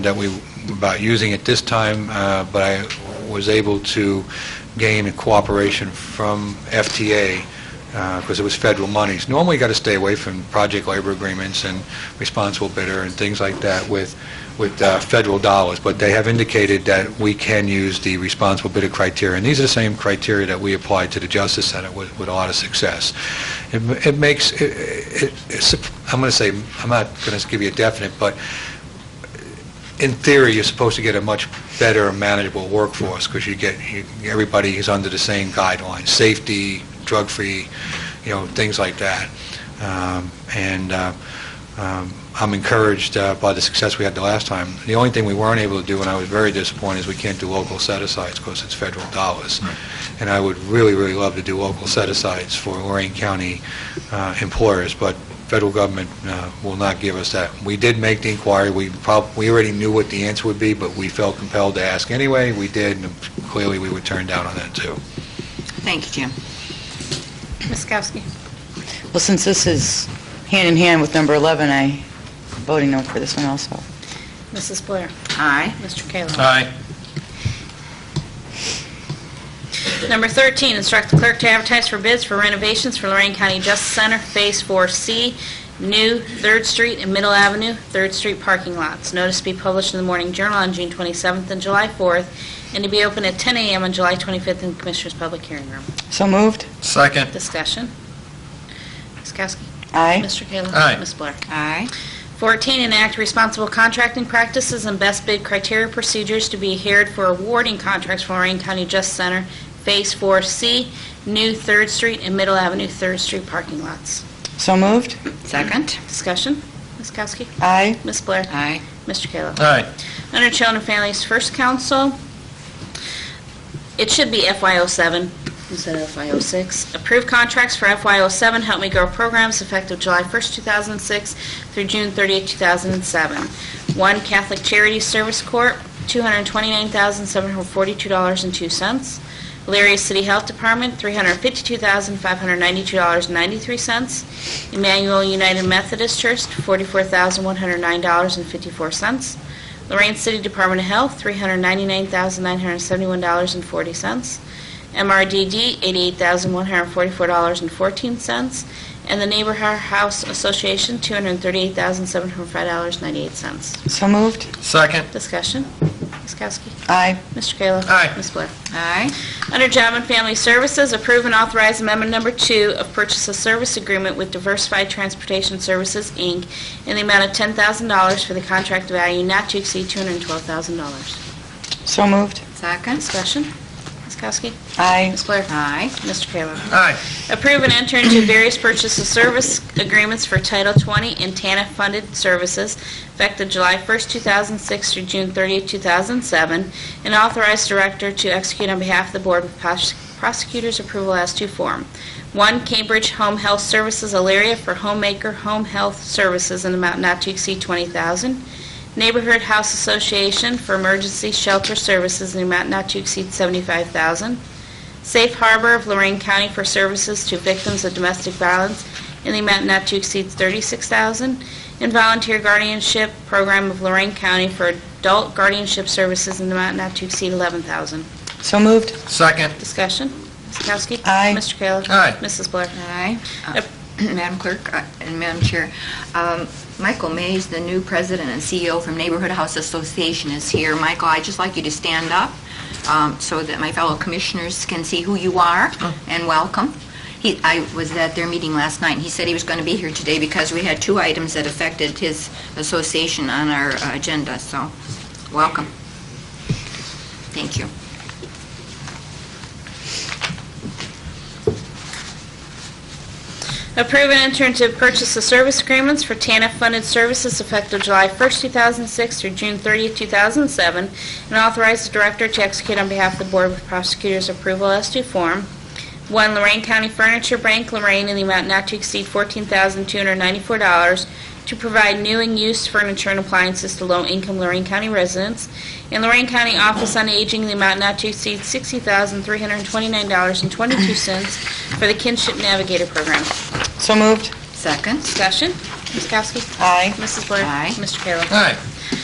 that we, about using it this time, uh, but I was able to gain cooperation from FTA, because uh, it was federal monies. Normally, you got to stay away from project labor agreements and responsible bidder and things like that with, with uh, federal dollars, but they have indicated that we can use the responsible bidder criteria, and these are the same criteria that we applied to the Justice Center with, with a lot of success. It it makes, it- it- it's- I'm going to say, I'm not going to give you a definite, but in theory, you're supposed to get a much better manageable workforce, because you get, you- everybody is under the same guidelines, safety, drug-free, you know, things like that. Um, And uh, um, I'm encouraged uh, by the success we had the last time. The only thing we weren't able to do, and I was very disappointed, is we can't do local set-asides, because it's federal dollars. And I would really, really love to do local set-asides for Lorraine County uh, employers, but federal government uh, will not give us that. We did make the inquiry, we prob, we already knew what the answer would be, but we felt compelled to ask anyway, we did, and clearly we were turned down on that, too. Thank you, Jim. Ms. Kowski. Well, since this is hand in hand with number 11, I voting no for this one also. Mrs. Blair. Aye. Mr. Kayla. Aye. Number 13, instruct the clerk to advertise for bids for renovations for Lorraine County Justice Center Phase 4C, new 3rd Street and Middle Avenue, 3rd Street parking lots. Notice to be published in the Morning Journal on June 27th and July 4th, and to be open at 10 a.m. on July 25th in Commissioners' Public Hearing Room. So moved? Second. Discussion. Ms. Kowski. Aye. Mr. Kayla. Aye. Ms. Blair. Aye. 14, enact responsible contracting practices and best bid criteria procedures to be adhered for awarding contracts for Lorraine County Justice Center Phase 4C, new 3rd Street and Middle Avenue 3rd Street parking lots. So moved? Second. Discussion? Ms. Kowski? Aye. Ms. Blair? Aye. Mr. Kayla? Aye. Under Children and Families First Council, it should be FY07 instead of FY06. Approved contracts for FY07 Help Me Grow programs effective July 1st, 2006 through June 30th, 2007. One Catholic Charity Service Corp., $229,742.02. Elyria City Health Department, $352,592.93. Emmanuel United Methodist Church, $44,109.54. Lorraine City Department of Health, $399,971.40. MRDD, $88,144.14. And the Neighbor House Association, $238,705.98. So moved? Second. Discussion? Ms. Kowski? Aye. Mr. Kayla? Aye. Ms. Blair? Aye. Under Job and Family Services, approve and authorize Amendment Number Two of Purchase of Service Agreement with Diversified Transportation Services, Inc., in the amount of $10,000 for the contract value not to exceed $212,000. So moved? Second. Discussion? Ms. Kowski? Aye. Ms. Blair? Aye. Mr. Kayla? Aye. Approve and enter into various purchase of service agreements for Title 20 and TANF-funded services effective July 1st, 2006 through June 30th, 2007, and authorize director to execute on behalf of the board with pros- prosecutor's approval as to form. One, Cambridge Home Health Services, Elyria for Homemaker Home Health Services in amount not to exceed 20000 Neighborhood House Association for Emergency Shelter Services in amount not to exceed 75000 Safe Harbor of Lorraine County for services to victims of domestic violence in the amount not to exceed $36,000, and Volunteer Guardianship Program of Lorraine County for adult guardianship services in the amount not to exceed $11,000. So moved? Second. Discussion? Ms. Kowski? Aye. Mr. Kayla? Aye. Mrs. Blair? Aye. Uh, Madam Clerk uh, and Madam Chair, um, Michael Mays, the new president and CEO from Neighborhood House Association, is here. Michael, I'd just like you to stand up um, so that my fellow commissioners can see who you are and welcome. He, I was at their meeting last night, and he said he was going to be here today because we had two items that affected his association on our uh, agenda, so welcome. Thank you. Approve and enter into purchase of service agreements for TANF-funded services effective July 1st, 2006 through June 30th, 2007, and authorize the director to execute on behalf of the board with prosecutor's approval as to form. One, Lorraine County Furniture Bank, Lorraine, in the amount not to exceed $14,294 to provide new and used furniture and appliances to low-income Lorraine County residents. And Lorraine County Office on Aging, in the amount not to exceed $60,329.22 for the Kinship Navigator Program. So moved? Second. Discussion, Ms. Kowski? Aye. Mrs. Blair? Aye. Mr. Kayla? Aye.